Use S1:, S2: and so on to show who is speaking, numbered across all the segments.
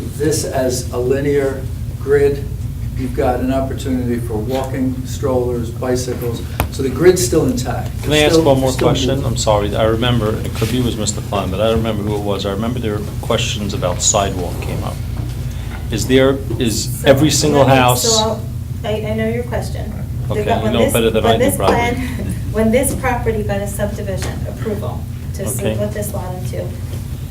S1: this as a linear grid, you've got an opportunity for walking, strollers, bicycles, so the grid's still intact.
S2: Can I ask
S1: Still-
S2: one more
S1: still
S2: question?
S1: moving.
S2: I'm sorry, I remember, it could be it was Mr. Klein, but I don't remember who it was. I remember there were questions about sidewalk came up. Is there, is
S3: So-
S2: every single
S3: so I'll-
S2: house?
S3: I, I know your question.
S2: Okay,
S3: They got-
S2: you
S3: when
S2: know
S3: this-
S2: better than
S3: when
S2: I do,
S3: this
S2: probably.
S3: plan- When this property got a subdivision approval to
S2: Okay.
S3: split this lot into,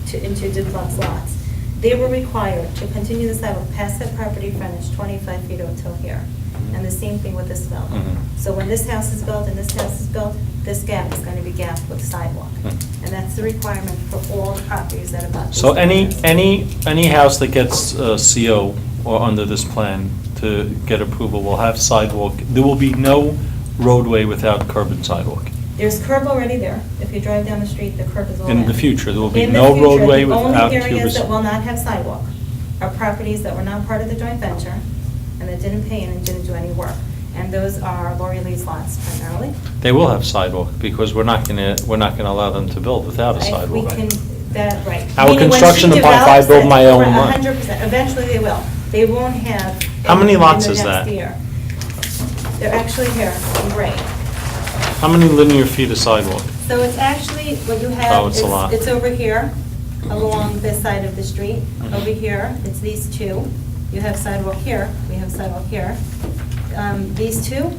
S3: to, into duplex lots, they were required to continue the sidewalk past that property frontage 25 feet up till here.
S2: Mm-hmm.
S3: And the same thing with this building.
S2: Mhm.
S3: So when this house is built and this house is built, this gap is going to be gapped with sidewalk.
S2: Mhm.
S3: And that's the requirement for all properties that are about.
S2: So
S3: this
S2: any,
S3: dimension.
S2: any, any house that gets uh, CO or under this plan to get approval will have sidewalk, there will be no roadway without curb and sidewalk.
S3: There's curb already there. If you drive down the street, the curb is all
S2: In
S3: there.
S2: the future, there will be
S3: In the
S2: no
S3: future,
S2: roadway without
S3: The only areas
S2: cubicles.
S3: that will not have sidewalk are properties that were not part of the joint venture and that didn't pay in and didn't do any work. And those are Lori Lee's lots primarily.
S2: They will have sidewalk, because we're not gonna, we're not gonna allow them to build without a
S3: If
S2: sidewalk.
S3: We can, that, right.
S2: Our
S3: Meaning when she
S2: construction department, if I
S3: develops
S2: build
S3: it,
S2: my own
S3: right,
S2: lot.
S3: 100%. Eventually they will. They won't have.
S2: How many
S3: in- in
S2: lots
S3: the
S2: is
S3: next
S2: that?
S3: year. They're actually here, in gray.
S2: How many linear feet of sidewalk?
S3: So it's actually, what you
S2: Oh,
S3: have,
S2: it's a lot.
S3: it's it's over here, along this side of the street.
S2: Mm-hmm.
S3: Over here, it's these two. You have sidewalk here, we have sidewalk here. Um, These two.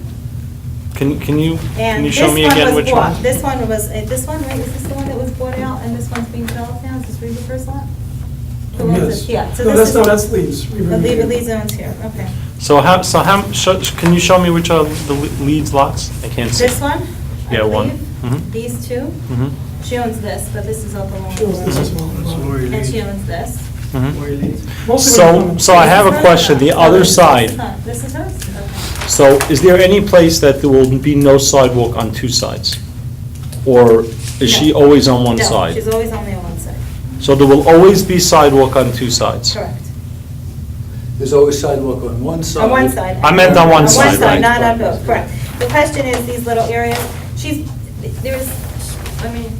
S2: Can, can you, can
S3: And
S2: you
S3: this
S2: show me again
S3: one was
S2: which one?
S3: bought. This one was, uh, this one, right, is this the one that was bought out and this one's being developed now? Is this Reba First Lot? The ones
S4: Yes.
S3: that- Yeah. so
S4: No,
S3: this
S4: that's,
S3: is-
S4: no, that's Lee's. We
S3: The
S4: reviewed
S3: Leba
S4: it.
S3: Lee zone's here, okay.
S2: So how, so how, sho- can you show me which are the le- leads lots? I can't see.
S3: This one? I
S2: Yeah, one.
S3: believe.
S2: Mhm.
S3: These two.
S2: Mhm,
S3: She owns this, but this is all the long.
S4: She owns this as well.
S3: And she owns this.
S2: mhm.
S4: Mostly
S2: So,
S4: when-
S2: so I have a question, the other side,
S3: This is hers? Okay.
S2: so is there any place that there will be no sidewalk on two sides? Or is she
S3: No.
S2: always on one
S3: No,
S2: side?
S3: she's always only on one side.
S2: So there will always be sidewalk on two sides?
S3: Correct.
S1: There's always sidewalk on one side.
S3: On one side.
S2: I meant on one side, right.
S3: not on both, correct. The question is these little areas, she's, there's, I mean.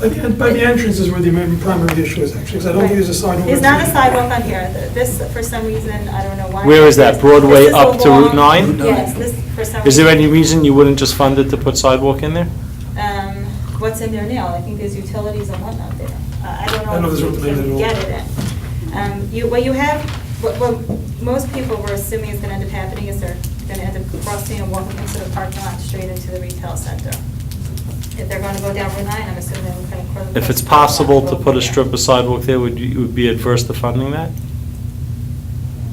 S4: By the, en- by the entrance is where the main primary issue is actually, because I don't think there's a sidewalk.
S3: There's not a sidewalk on here. The- This, for some reason, I don't know why.
S2: Where is that?
S3: This-
S2: Broadway
S3: this is
S2: up to Route
S3: along-
S2: nine?
S3: Yes, this, for some.
S2: Is there
S3: reason.
S2: any reason you wouldn't just fund it to put sidewalk in there?
S3: um, what's in there now. I think there's utilities and whatnot there. Uh, I
S4: I
S3: don't know
S4: know
S3: if
S4: there's
S3: you
S4: utilities
S3: can
S4: at all.
S3: get it in. Um, You, what you have, what, what most people were assuming is gonna end up happening is they're gonna end up crossing and walking into the parking lot straight into the retail center. If they're gonna go down Route 9, I'm assuming they're gonna. cross-
S2: If it's possible to
S3: cross
S2: put
S3: over
S2: a strip of sidewalk there, would you, would be adverse to funding that?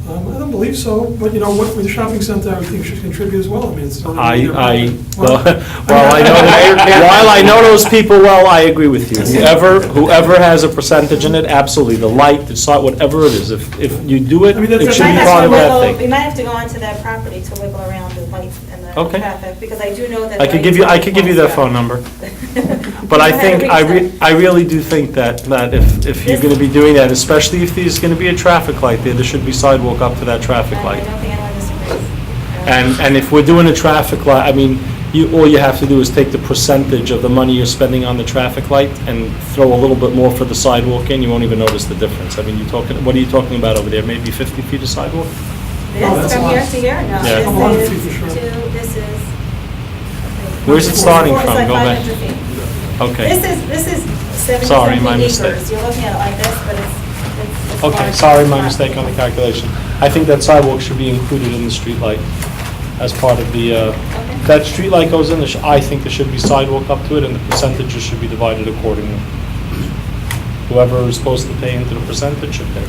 S4: Um, I don't believe so, but you know, what, with the shopping center, I would think should contribute as well, I mean, it's. not-
S2: I, I, well,
S4: Well,
S2: while I know, that- while I know those people well, I agree with you. Whoever, whoever has a percentage in it, absolutely, the light, the site, whatever it is, if, if you do it,
S4: I mean, that's
S2: it
S3: We
S2: should
S3: might
S2: be
S3: have
S2: part
S3: to
S2: of
S3: wiggle-
S2: that
S3: We
S2: thing.
S3: might have to go onto that property to wiggle around the lights and the
S2: Okay.
S3: traffic, because I do know that.
S2: I could give you, I could give you that phone number, but I think, I re, I really do think that, that if, if you're gonna be doing that, especially if there's gonna be a traffic light there, there should be sidewalk up to that traffic
S3: I
S2: light.
S3: don't think anyone disagrees.
S2: And, and if we're doing a traffic light, I mean, you, all you have to do is take the percentage of the money you're spending on the traffic light and throw a little bit more for the sidewalk in, you won't even notice the difference. I mean, you're talking, what are you talking about over there, maybe 50 feet of sidewalk?
S4: Oh,
S3: This
S4: that's
S3: from
S4: a
S3: here
S4: lot.
S3: to here?
S2: Yeah.
S3: No, this
S2: A
S4: lot of
S3: is
S4: feet for sure.
S3: to, this is.
S2: Where's it starting
S3: It's
S2: from?
S3: like
S2: Go back.
S3: 500 feet. This
S2: Okay.
S3: is, this is
S2: Sorry,
S3: seventy
S2: my
S3: something acres.
S2: mistake.
S3: You're looking at it like this, but it's- it's, it's.
S2: Okay,
S3: large.
S2: sorry,
S3: It's
S2: my
S3: not-
S2: mistake on the calculation. I think that sidewalk should be included in the streetlight as part of the, uh,
S3: Okay.
S2: that streetlight goes in, there sh- I think there should be sidewalk up to it, and the percentages should be divided accordingly. Whoever is supposed to pay into the percentage should pay.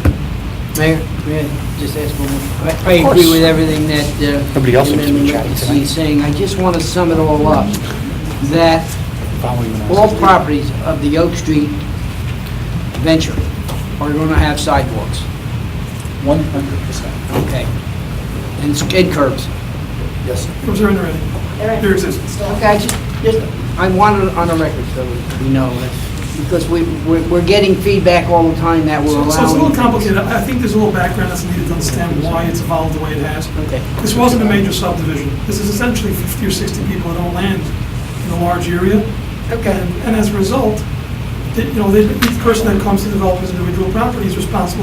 S5: Mayor, may I just ask one more? I- I agree with everything that uh,
S2: Nobody else seems to be chatting tonight.
S5: he's saying. I just want to sum it all up, that all properties of the Oak Street venture are going to have sidewalks,
S1: One hundred percent,
S5: okay? And skid curbs.
S1: yes, sir.
S4: It was already, ready.
S3: They're in.
S4: there exists.
S5: Okay, I just, just- I want it on the record, so we know, that- because we, we're we're getting feedback all the time that we're
S4: So so it's a little
S5: allowing.
S4: complicated, I think there's a little background that's needed to understand why it's evolved the way it has.
S5: Okay.
S4: This wasn't a major subdivision, this is essentially 50 or 60 people that own land in a large area.
S5: Okay.
S4: And as a result, that, you know, that each person that comes to develop his individual property is responsible